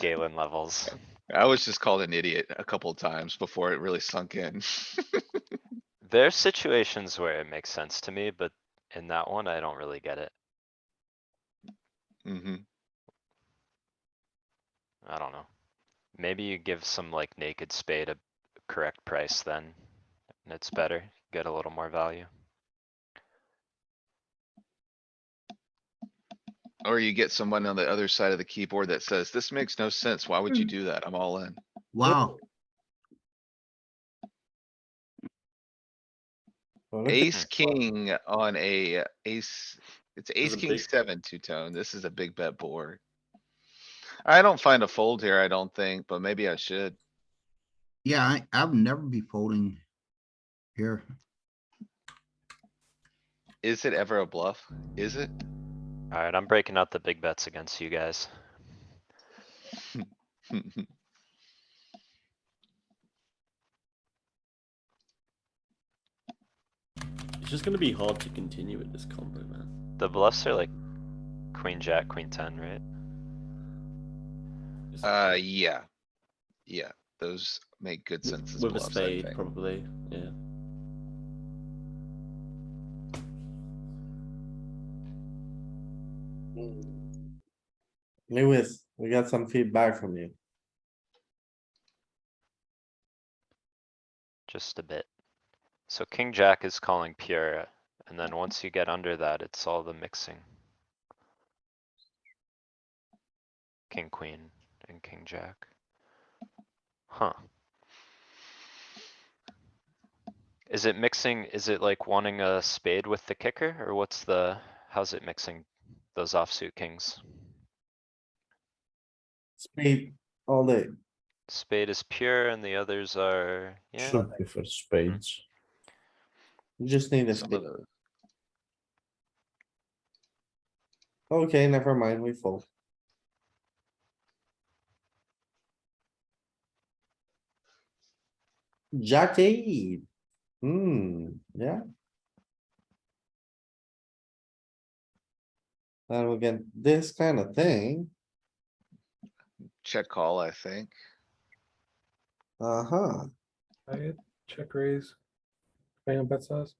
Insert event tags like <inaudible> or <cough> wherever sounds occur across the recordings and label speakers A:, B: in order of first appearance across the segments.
A: Galen levels.
B: I was just called an idiot a couple of times before it really sunk in. <laughs>
A: There's situations where it makes sense to me, but in that one, I don't really get it.
B: hmm
A: I don't know. Maybe you give some like naked spade a correct price then, and it's better, get a little more value.
B: Or you get someone on the other side of the keyboard that says, this makes no sense. Why
C: Hmm.
B: would you do that? I'm all in.
D: Wow,
E: Well, look at
B: Ace
E: that.
B: king on a ace, it's ace
C: a
B: king
C: big-
B: seven two tone. This is a big bet board. I don't find a fold here, I don't think, but maybe I should.
D: yeah, I, I would never be folding here.
B: Is it ever a bluff? Is it?
A: Alright, I'm breaking out the big bets against you guys.
C: It's just gonna be hard to continue with this combo, man.
A: The bluffs are like queen, jack, queen ten, right?
C: Just
B: Uh, yeah. Yeah, those make good sense as
C: with a
B: bluffs, I
C: spade,
B: think.
C: probably. Yeah.
E: Lewis, we got some feedback from you.
A: Just a bit. So king, jack is calling pure, and then once you get under that, it's all the mixing. King, queen, and king, jack. Huh. Is it mixing, is it like wanting a spade with the kicker, or what's the, how's it mixing those offsuit kings?
E: Spade all day.
A: Spade is pure and the others are, yeah,
E: Should be for spades. You Just need a
B: Some of
E: spade.
B: the-
E: Okay, never mind, we fold. Jack eight. Hmm, yeah. And we get this kind of thing.
B: Check call, I think.
E: Uh-huh.
F: I had check raise, depending on bet size.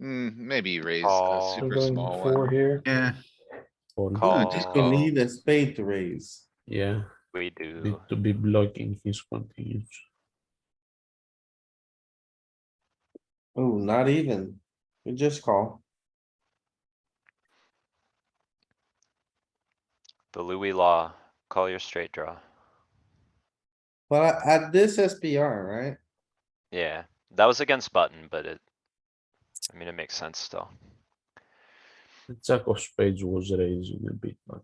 B: Mm, maybe you raise a
A: Call.
F: We're
B: super
F: going
B: small
F: four
B: one.
F: here.
D: Yeah,
G: Or
D: I just don't
A: Call.
B: Oh.
D: need a spade to raise.
G: yeah,
A: we
G: need
A: do.
G: to be blocking his continues.
E: Oh, not even. We just call.
A: The Louis law, call your straight draw.
E: But at this SPR, right?
A: Yeah, that was against button, but it, I mean, it makes sense still.
G: The jack of spades was raising a bit, but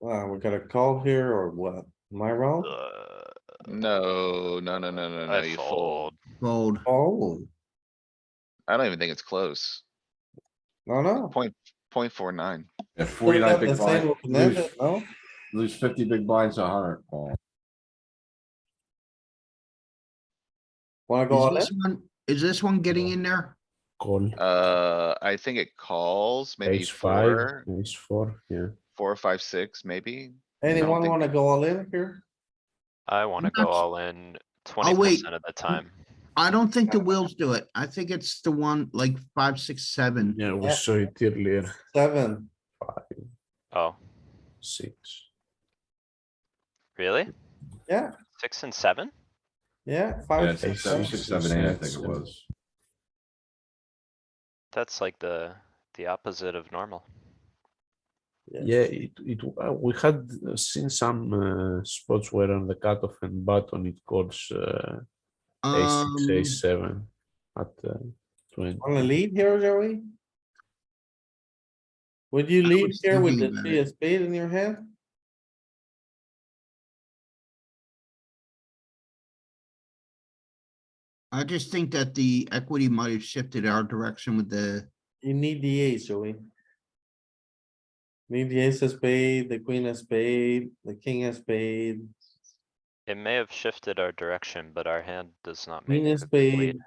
E: Wow, we got a call here or what? Am I wrong?
A: Uh,
B: No, no, no, no, no, no,
A: I
B: you fold.
A: fold.
D: Fold.
E: Oh,
B: I don't even think it's close.
E: no,
F: Oh.
E: no.
B: Point, point four nine.
H: Yeah, forty-nine
E: Got
H: big
E: the same
H: blinds,
E: open
H: lose,
E: ended, No,
H: lose fifty big blinds, a hundred ball.
C: Wanna
D: Is this one, is this one getting in there?
G: call.
B: Uh, I think it calls maybe
G: Ace
B: four,
G: five, ace four, yeah.
B: four, five, six, maybe.
E: anyone
B: think-
E: wanna go all in here?
A: I wanna go
D: Nuts.
A: all in twenty
D: Oh, wait.
A: percent of the time.
D: I don't think the wheels do it. I think it's the one like five, six, seven.
G: Yeah, we
E: Yeah.
G: saw it earlier,
E: Seven,
G: five,
A: Oh,
G: six.
A: really?
E: Yeah.
A: Six and seven?
E: yeah,
H: Yeah,
E: five,
H: six,
E: six,
H: seven,
E: seven.
H: six, seven, eight, I think it was.
A: That's like the, the opposite of normal.
G: Yeah, it, it, uh, we had uh, seen some uh, spots where on the cutoff and button it calls uh, ace
D: Um,
G: six, ace seven at uh, twenty.
E: Wanna lead here, Joey? Would you lead
D: was
E: here with
D: thinking
E: the
D: about
E: three of spade in your hand?
D: I just think that the equity might have shifted our direction with the,
E: You need the ace, Joey. Need the ace of spade, the queen of spade, the king of spade,
A: It may have shifted our direction, but our hand does not make.
E: queen
A: a
E: of
A: complete-
E: spade,